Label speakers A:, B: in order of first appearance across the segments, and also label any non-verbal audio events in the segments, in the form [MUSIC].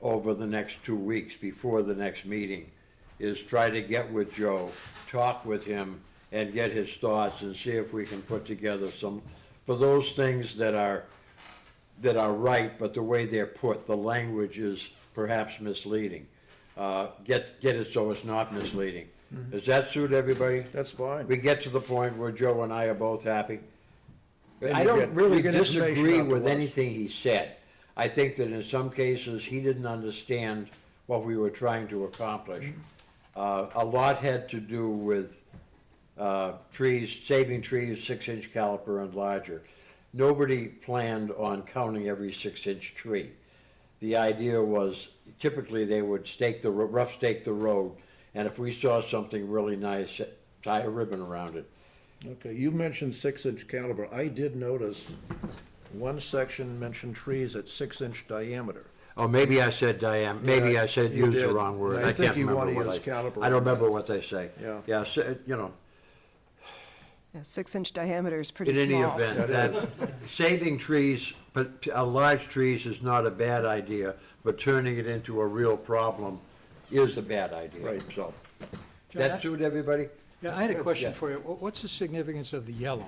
A: over the next two weeks before the next meeting is try to get with Joe, talk with him, and get his thoughts and see if we can put together some, for those things that are, that are right, but the way they're put, the language is perhaps misleading. Uh, get, get it so it's not misleading. Does that suit everybody?
B: That's fine.
A: We get to the point where Joe and I are both happy.
B: And
A: I
B: you
A: don't
B: get-
A: really
B: you get information
A: disagree
B: out to
A: with
B: us.
A: anything he said. I think that in some cases, he didn't understand what we were trying to accomplish. Uh, a lot had to do with, uh, trees, saving trees, six-inch caliper and larger. Nobody planned on counting every six-inch tree. The idea was typically they would stake the, ro- rough stake the road, and if we saw something really nice, tie a ribbon around it.
B: Okay, you mentioned six-inch caliber. I did notice one section mentioned trees at six-inch diameter.
A: Oh, maybe I said diam, maybe
B: Yeah,
A: I said
B: you
A: use the
B: did.
A: wrong word.
B: I
A: I
B: think
A: can't
B: you
A: remember
B: wanna
A: what I.
B: use caliper.
A: I don't remember what they say.
B: Yeah.
A: Yeah, so, uh, you know,
C: Yeah, six inch diameter is pretty
A: in
C: small.
A: any event, that, saving trees, but, uh, large trees is not a bad idea, but turning it into a real problem is a bad idea,
B: Right.
A: so.
D: John, I-
A: That suit everybody?
D: Yeah, I had a question
A: Yeah.
D: for you. What- What's the significance of the yellow?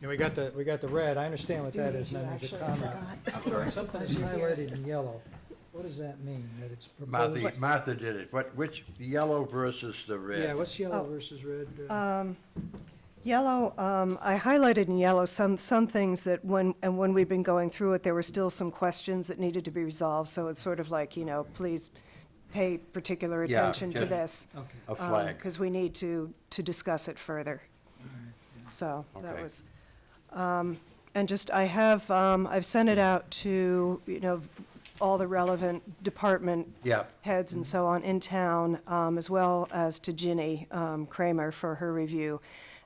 D: And we got the, we got the red, I understand what that is, and then there's a comma. Sometimes highlighted in yellow. What does that mean, that it's proposed?
A: Martha, Martha did it. What, which, yellow versus the red?
D: Yeah, what's yellow versus red? uh,
C: Yellow, um, I highlighted in yellow some, some things that when, and when we've been going through it, there were still some questions that needed to be resolved, so it's sort of like, you know, please pay particular
A: Yeah,
C: attention to
A: yeah.
C: this.
A: A flag.
C: Because we need to, to discuss it further. So that
A: Okay.
C: was, um, and just, I have, um, I've sent it out to, you know, all the relevant department
A: Yeah.
C: heads
A: Mm-hmm.
C: and so on in town, um, as well as to Ginny um, Kramer for her review.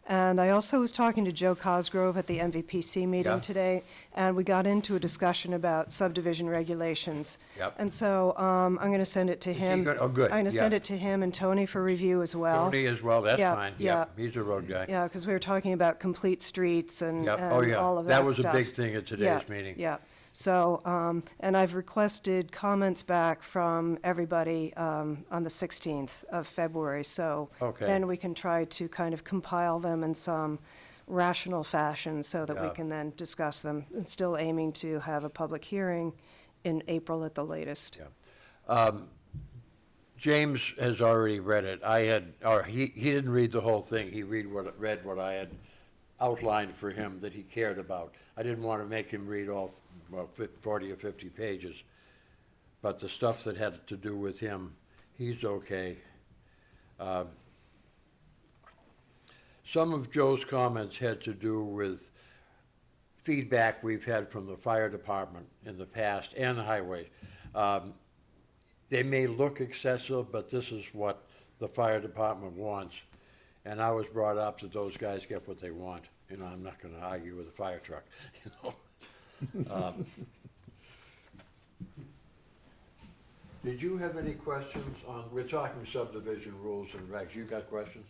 C: And I also was talking to Joe Cosgrove at the MVPC
A: Yeah.
C: meeting today, and we got into a discussion about subdivision regulations.
A: Yep.
C: And so um, I'm going to send it to him.
A: good? Oh, good,
C: I'm going to send
A: yeah.
C: it to him and Tony for review as well.
A: Tony as well, that's
C: Yeah,
A: fine. Yep,
C: yeah.
A: He's a road guy.
C: Yeah, because we were talking about complete streets and,
A: Yep. Oh,
C: and
A: yeah.
C: all of
A: That
C: that stuff.
A: was a big thing at today's
C: Yeah,
A: meeting.
C: Yeah, so, um, and I've requested comments back from everybody, um, on the sixteenth of February, so.
A: Okay.
C: Then we can try to kind of compile them in some rational fashion so that we
A: Yeah.
C: can then discuss them. And still aiming to have a public hearing in April at the latest.
A: James has already read it. I had, or he, he didn't read the whole thing. He read what, read what I had outlined for him that he cared about. I didn't want to make him read all, well, fif- forty or fifty pages. But the stuff that had to do with him, he's okay. Um, Some of Joe's comments had to do with feedback we've had from the fire department in the past and the highway. Um, they may look excessive, but this is what the fire department wants. And I was brought up that those guys get what they want, you know, I'm not gonna argue with a fire truck, [LAUGHS] you know? Um, Did you have any questions on, we're talking subdivision rules and regs, you got questions?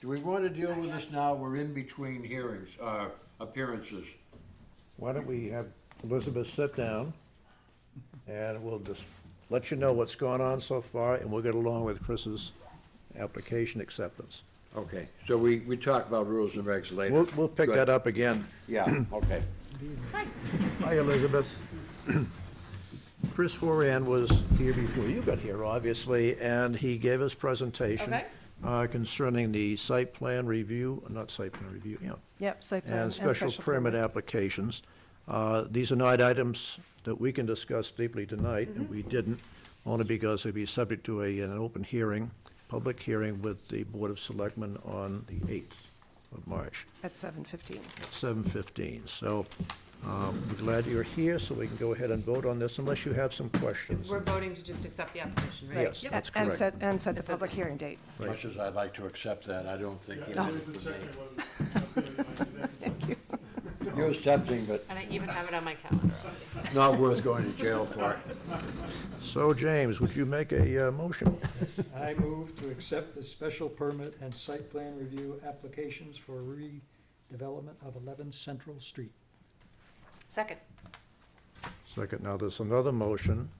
A: Do we wanna deal with this now, we're in between hearings, uh, appearances?
B: Why don't we have Elizabeth sit down, and we'll just let you know what's gone on so far, and we'll get along with Chris's application acceptance.
A: Okay, so we, we talk about rules and regs later.
B: We'll, we'll pick
A: Good.
B: that up again.
A: Yeah, okay.
B: Hi, Elizabeth. [CLEARS THROAT] Chris Horan was here before you got here, obviously, and he gave his presentation
E: Okay.
B: uh, concerning the site plan review, not site plan review, yeah,
C: Yep, site plan.
B: and special permit applications. Uh, These are not items that we can discuss deeply tonight, and we didn't, only because they'd be subject to a, an open hearing, public hearing with the Board of Selectmen on the 8th of March
C: At seven fifteen.
B: at 7:15. So um, we're glad you're here, so we can go ahead and vote on this unless you have some questions.
E: We're voting to just accept the application, right?
B: Yes,
E: Yep.
B: that's
C: And
B: correct.
C: set, and set the
E: It's at-
C: public hearing date.
A: Much as I'd like to accept that, I don't think he
F: Yeah,
A: meant
F: it
A: it
F: was the
A: for me.
F: second one. [LAUGHS] That's the one I did.
A: You're accepting, but
E: And I even have it on my calendar.
A: not worth going to jail for. [LAUGHS]
B: So James, would you make a uh, motion?
D: I move to accept the special permit and site plan review applications for redevelopment of 11 Central Street.
E: Second.
B: Second, now there's another motion